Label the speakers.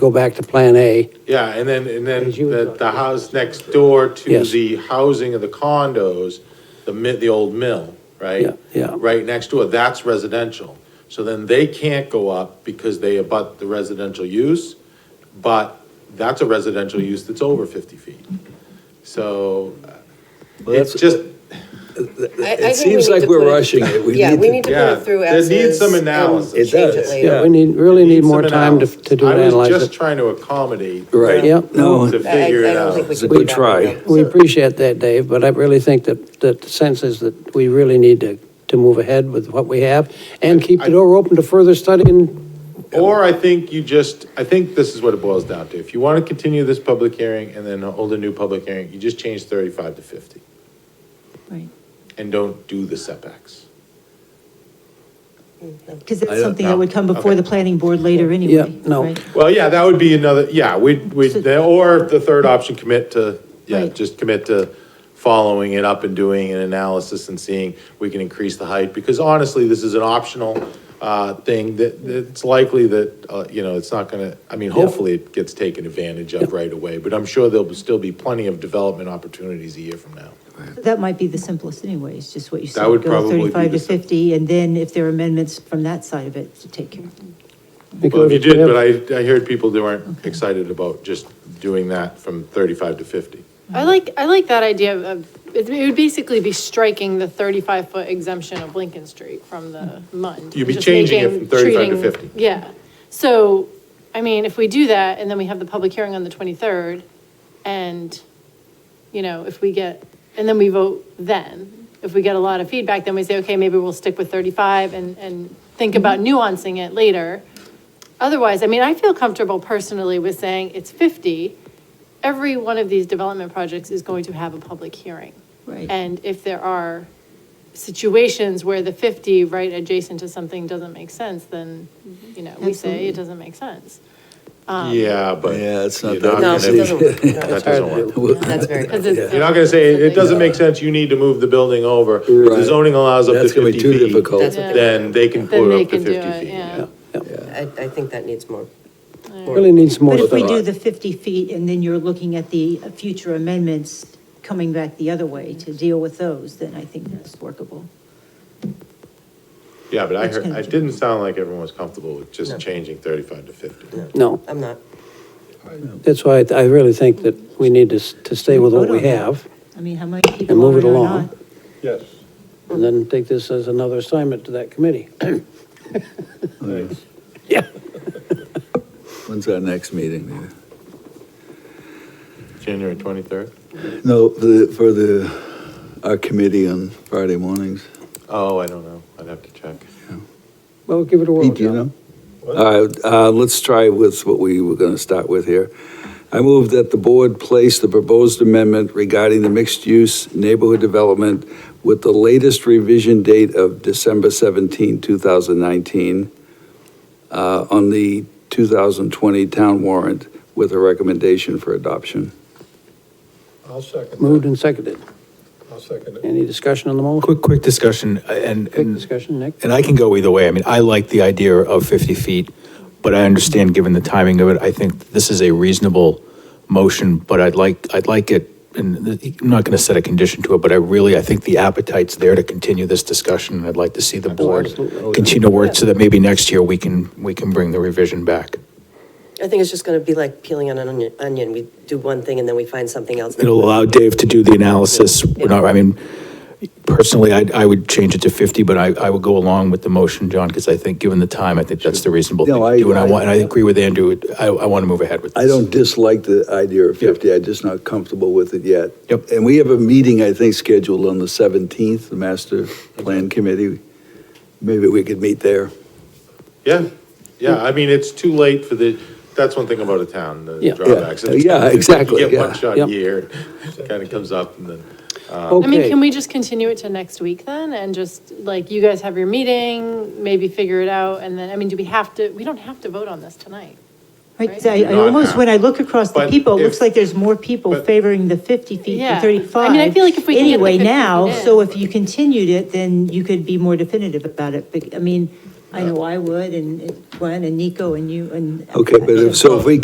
Speaker 1: go back to Plan A.
Speaker 2: Yeah, and then, and then
Speaker 1: As you
Speaker 2: the,
Speaker 1: thought.
Speaker 2: the house next door to
Speaker 1: Yes.
Speaker 2: the housing of the condos, the mi, the old mill, right?
Speaker 1: Yeah, yeah.
Speaker 2: Right next door, that's residential. So then they can't go up because they abut the residential use, but that's a residential use that's over fifty feet. So uh, it's
Speaker 3: that's-
Speaker 2: just,
Speaker 4: I- I
Speaker 3: It
Speaker 4: think we
Speaker 3: seems
Speaker 4: need
Speaker 3: like
Speaker 4: to
Speaker 3: we're
Speaker 4: put it-
Speaker 3: rushing it. We
Speaker 4: Yeah,
Speaker 3: need
Speaker 4: we
Speaker 3: to-
Speaker 4: need to
Speaker 2: yeah,
Speaker 4: put it through
Speaker 2: there
Speaker 4: as
Speaker 2: needs
Speaker 4: is
Speaker 2: some
Speaker 4: and
Speaker 2: analysis.
Speaker 3: It
Speaker 4: change it
Speaker 3: does,
Speaker 4: later.
Speaker 3: Yeah.
Speaker 1: We need, really need
Speaker 2: Needs
Speaker 1: more
Speaker 2: some
Speaker 1: time to,
Speaker 2: analysis.
Speaker 1: to do an
Speaker 2: I was
Speaker 1: analysis.
Speaker 2: just trying to accommodate.
Speaker 3: Right.
Speaker 1: Yeah, no,
Speaker 2: To
Speaker 4: I- I-
Speaker 2: figure
Speaker 4: I
Speaker 2: it
Speaker 4: don't
Speaker 2: out.
Speaker 4: think
Speaker 3: It's
Speaker 4: can
Speaker 3: a good
Speaker 4: do that right
Speaker 3: try.
Speaker 4: now.
Speaker 1: We
Speaker 4: So-
Speaker 1: appreciate that, Dave, but I really think that, that the sense is that we really need to, to move ahead with what we have and keep the door open to further study and,
Speaker 2: Or I think you just, I think this is what it boils down to. If you want to continue this public hearing and then hold a new public hearing, you just change thirty-five to fifty
Speaker 5: Right,
Speaker 2: and don't do the setbacks.
Speaker 5: because
Speaker 3: I
Speaker 5: that's
Speaker 3: don't
Speaker 5: something
Speaker 2: know.
Speaker 5: that would come before
Speaker 2: Okay.
Speaker 5: the planning board later anyway.
Speaker 1: yeah, no.
Speaker 5: right?
Speaker 2: Well, yeah, that would be another, yeah, we, we, or the third option, commit to, yeah,
Speaker 5: Right.
Speaker 2: just commit to following it up and doing an analysis and seeing we can increase the height. Because honestly, this is an optional, uh, thing that, that it's likely that, uh, you know, it's not gonna, I mean, hopefully it gets taken advantage of right away. But I'm sure there'll still be plenty of development opportunities a year from now.
Speaker 5: That might be the simplest anyway, it's just what you said.
Speaker 2: would probably be
Speaker 5: Go 35
Speaker 2: the
Speaker 5: to
Speaker 2: sim-
Speaker 5: 50, and then if there are amendments from that side of it, to take care of.
Speaker 2: Well,
Speaker 1: because
Speaker 2: if you did,
Speaker 1: we have-
Speaker 2: but I, I heard people that weren't excited about just doing that from thirty-five to fifty.
Speaker 6: I like, I like that idea of, it it would basically be striking the 35-foot exemption of Lincoln Street from the MUND.
Speaker 2: You'd be
Speaker 6: just
Speaker 2: changing it
Speaker 6: making-
Speaker 2: from 35 to
Speaker 6: treating-
Speaker 2: 50.
Speaker 6: Yeah. So, I mean, if we do that, and then we have the public hearing on the 23rd, and, you know, if we get, and then we vote then, if we get a lot of feedback, then we say, okay, maybe we'll stick with 35 and, and think about nuancing it later. Otherwise, I mean, I feel comfortable personally with saying it's 50. Every one of these development projects is going to have a public hearing.
Speaker 5: Right.
Speaker 6: And if there are situations where the 50 right adjacent to something doesn't make sense, then, you know, we say
Speaker 5: Absolutely.
Speaker 6: it doesn't make sense.
Speaker 2: Yeah, but.
Speaker 3: Yeah, it's not
Speaker 2: you're
Speaker 3: that
Speaker 4: No, it
Speaker 2: gonna-
Speaker 4: doesn't work. No,
Speaker 2: That doesn't work.
Speaker 4: That's very.
Speaker 6: 'Cause it's-
Speaker 2: You're not gonna say, it doesn't make sense, you need to move the building over. If the
Speaker 3: Right.
Speaker 2: zoning allows up to
Speaker 3: That's gonna
Speaker 2: fifty
Speaker 3: be too
Speaker 2: feet,
Speaker 3: difficult.
Speaker 4: That's what
Speaker 2: then they can
Speaker 6: Then
Speaker 2: put
Speaker 6: they
Speaker 2: up to
Speaker 6: can do
Speaker 2: fifty
Speaker 6: it,
Speaker 2: feet.
Speaker 6: yeah.
Speaker 4: I, I think that needs more.
Speaker 1: Really needs more
Speaker 5: But if we
Speaker 1: thought.
Speaker 5: do the 50 feet, and then you're looking at the future amendments coming back the other way to deal with those, then I think that's workable.
Speaker 2: Yeah, but I
Speaker 5: That's
Speaker 2: heard,
Speaker 5: gonna
Speaker 2: it
Speaker 5: do-
Speaker 2: didn't sound like everyone was comfortable with
Speaker 4: No.
Speaker 2: just changing thirty-five to fifty.
Speaker 1: No,
Speaker 4: I'm not.
Speaker 1: that's why I I really think that we need to, s- to stay with what we
Speaker 5: Vote on that.
Speaker 1: have
Speaker 5: I mean, how many people
Speaker 1: move it
Speaker 5: are or
Speaker 1: along.
Speaker 5: not?
Speaker 7: Yes.
Speaker 1: and then take this as another assignment to that committee.
Speaker 3: Thanks.
Speaker 1: Yeah.
Speaker 3: When's our next meeting?
Speaker 2: January twenty-third?
Speaker 3: No, the- for the, our committee on Friday mornings.
Speaker 2: Oh, I don't know, I'd have to check.
Speaker 1: Well, give it a whirl,
Speaker 3: Pete, do you
Speaker 1: John.
Speaker 3: know? All right, uh, let's try with what we were going to start with here. I move that the board place the proposed amendment regarding the mixed-use neighborhood development with the latest revision date of December 17, 2019, uh, on the 2020 town warrant with a recommendation for adoption.
Speaker 7: I'll second
Speaker 1: Moved
Speaker 7: that.
Speaker 1: and seconded.
Speaker 7: I'll second it.
Speaker 1: Any discussion on the motion?
Speaker 8: Quick, quick discussion, uh, and,
Speaker 1: Quick
Speaker 8: and
Speaker 1: discussion, Nick?
Speaker 8: and I can go either way. I mean, I like the idea of 50 feet, but I understand, given the timing of it, I think this is a reasonable motion, but I'd like, I'd like it, and I'm not going to set a condition to it, but I really, I think the appetite's there to continue this discussion, and I'd like to see the board
Speaker 1: Absolutely. Oh,
Speaker 8: continue to work so that maybe next year we can, we can bring the revision back.
Speaker 4: I think it's just gonna be like peeling on an onion, onion. We do one thing and then we find something else.
Speaker 8: It'll allow Dave to do the analysis. We're not, I mean, personally, I, I would change it to 50, but I, I would go along with the motion, John, because I think, given the time, I think that's the reasonable thing
Speaker 3: No, I-
Speaker 8: to do. And I
Speaker 3: I-
Speaker 8: want, and I agree with Andrew, I, I want to move ahead with this.
Speaker 3: I don't dislike the idea of 50, I'm just not comfortable with it yet.
Speaker 8: Yep.
Speaker 3: And we have a meeting, I think, scheduled on the 17th, the Master Plan Committee. Maybe we could meet there.
Speaker 2: Yeah, yeah, I mean, it's too late for the, that's one thing about a town, the
Speaker 1: Yeah.
Speaker 2: drawbacks.
Speaker 3: Yeah, yeah, exactly,
Speaker 2: You get one
Speaker 3: yeah,
Speaker 2: shot
Speaker 1: yeah.
Speaker 2: a year, kind of comes up and then.
Speaker 6: I mean,
Speaker 1: Okay,
Speaker 6: can we just continue it to next week then, and just, like, you guys have your meeting, maybe figure it out, and then, I mean, do we have to, we don't have to vote on this tonight.
Speaker 5: Right, so I,
Speaker 2: You do
Speaker 5: I
Speaker 2: not
Speaker 5: almost,
Speaker 2: have.
Speaker 5: when I look across the
Speaker 2: But
Speaker 5: people, it looks
Speaker 2: if-
Speaker 5: like there's more people
Speaker 2: but-
Speaker 5: favoring the 50 feet
Speaker 6: Yeah. I
Speaker 5: than
Speaker 6: mean,
Speaker 5: 35.
Speaker 6: I feel like if we can get the
Speaker 5: Anyway
Speaker 6: 50
Speaker 5: now,
Speaker 6: feet
Speaker 5: so
Speaker 6: in.
Speaker 5: if you continued it, then you could be more definitive about it. Bec- I mean, I know I would, and Gwen, and Nico, and you, and.
Speaker 3: Okay, but if, so if we